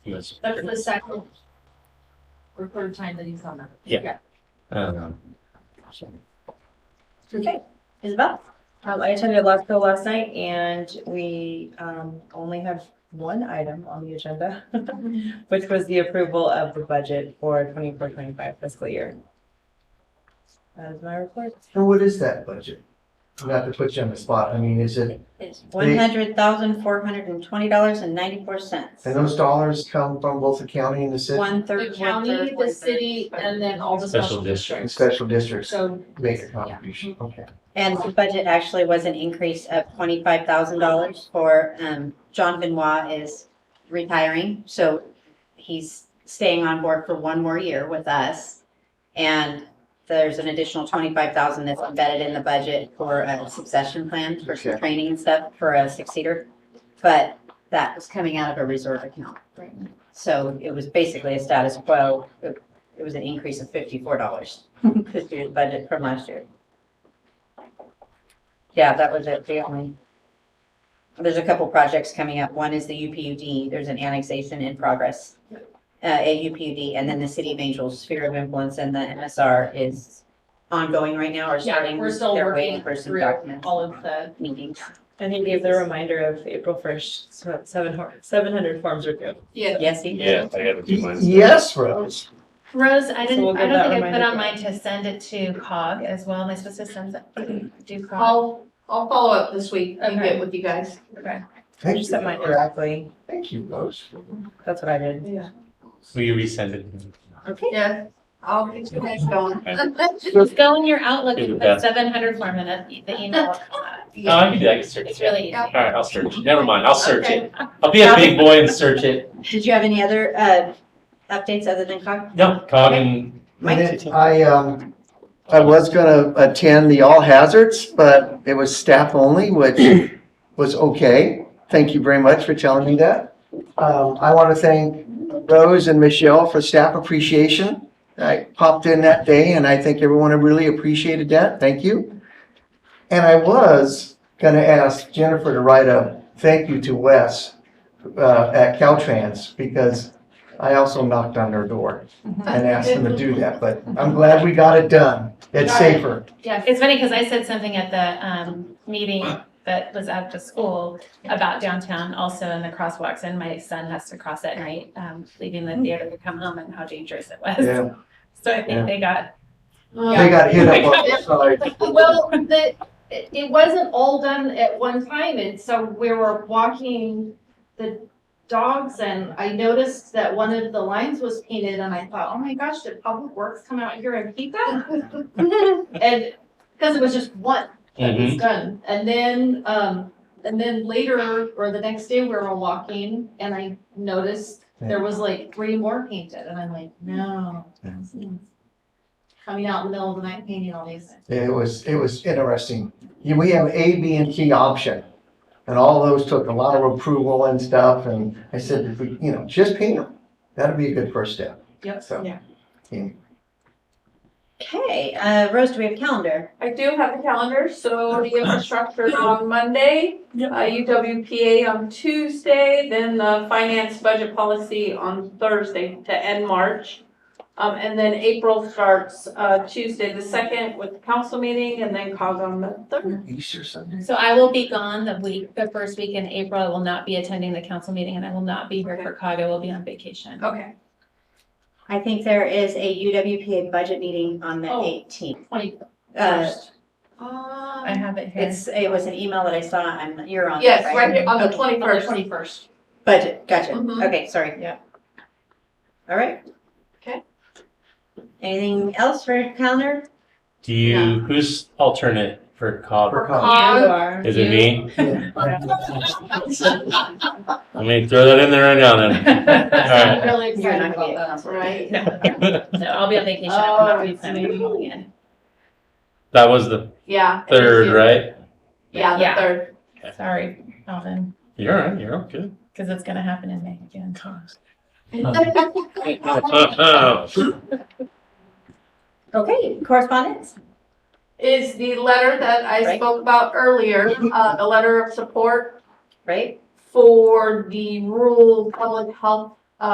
Yes. That's the second or third time that he's done that. Yeah. Um, Okay, Isabel? Um, I attended LASCO last night and we, um, only have one item on the agenda, which was the approval of the budget for 24-25 fiscal year. That is my report. And what is that budget? Not to put you on the spot, I mean, is it, It's one hundred thousand, four hundred and twenty dollars and ninety-four cents. and those dollars come from both the county and the city? One third, The one county, third, the one third. city, and then all the Special special And districts. special districts So. make a contribution, okay. And the budget actually was an increase of twenty-five thousand dollars for, um, John Benoit is retiring, so he's staying on board for one more year with us. And there's an additional twenty-five thousand that's embedded in the budget for a succession plan for some Okay. training and stuff for a successor. But that was coming out of a reserve account. So it was basically a status quo. It it was an increase of fifty-four dollars this year's budget from last year. Yeah, that was it, the only. There's a couple projects coming up. One is the UPUD. There's an annexation in progress. Uh, at UPUD and then the City of Angels Sphere of Influence and the MSR is ongoing right now or Yeah, starting. we're still They're waiting working for some through documents, all of the, meetings. And he gave the reminder of April first, seven, hor- seven hundred forms are due. yeah. Yes, he Yeah, I gotta do mine. Yes, Rose. Rose, I we'll didn't, give I that don't think I put reminder on to mine to send it to COG as well. Am I supposed to send that, Mm-hmm. do COG? I'll, I'll follow up this week and get with you guys. I Thank just you, sent mine Rose. directly. Thank you, Rose. That's what I did. Yeah. will you resend it? Yeah, I'll get you guys going. Just go in your Outlook Do and that. put seven hundred form in the the email. No, Oh, I can do that, I can search It's it. really easy. All right, I'll search it. Never mind, I'll search Okay. it. I'll be a big boy and search it. Did you have any other, uh, updates other than COG? No, cog and. Mike? And it- I, um, I was gonna attend the All Hazards, but it was staff only, which was okay. Thank you very much for telling me that. Um, I want to thank Rose and Michelle for staff appreciation. I popped in that day and I think everyone really appreciated that. Thank you. And I was gonna ask Jennifer to write a thank you to Wes, uh, at Caltrans because I also knocked on their door and asked them to do that, but I'm glad we got it done. It's Got it. safer. Yes. It's funny because I said something at the um, meeting that was at the school about downtown also in the crosswalks and my son has to cross at night, um, leaving the theater to come home and how dangerous it was. Yeah, So I Yeah. think they got, Um, they got hit up on the side. Well, the, it it wasn't all done at one time, and so we were walking the dogs, and I noticed that one of the lines was painted, and I thought, oh my gosh, did Public Works come out here and paint that? And, because it was just one that was done, and then, um, and then later, or the next day, we were walking, and I noticed there was like three more painted, and I'm like, no. Yeah. Coming out in the middle of the night painting all these. It was, it was interesting. You- We have A, B, and T option. And all those took a lot of approval and stuff, and I said, if we- you know, just paint them. That'd be a good first step. Yep. So, Okay, uh, Rose, do we have a calendar? I do have the calendar, so the infrastructure is on Monday, uh, UWPA on Tuesday, then the finance budget policy on Thursday to end March. Um, and then April starts, uh, Tuesday the second with the council meeting and then COG on the third. Easter Sunday. so I will be gone the week, the first week in April. I will not be attending the council meeting and I will not be here for COG. I will be on vacation. Okay. I think there is a UWPA budget meeting on the Oh. 18th. Twenty Uh, first. Um, I have it here. It's, it was an email that I saw, I'm, you're on. Yes, that, right here, on the On the twenty-first. twenty first. Budget, gotcha, Mm-hmm. Mhm. okay, sorry. Yeah. All right. Okay. Anything else for calendar? Do you, who's alternate for cog? For COG. cause. You are. Is it me? Let me throw that in there right now then. I'm really You're excited not gonna be about that. Right. Alright. No, I'll be on vacation. I'm not Oh, be planning on calling in. That was the Yeah. third, right? Yeah, Yeah. the third. Sorry, Alvin, You're all right, you're all good. because it's gonna happen in May again. Oh. Okay, correspondence? Is the letter that I Right. spoke about earlier, uh, the letter of support Right? for the rural public health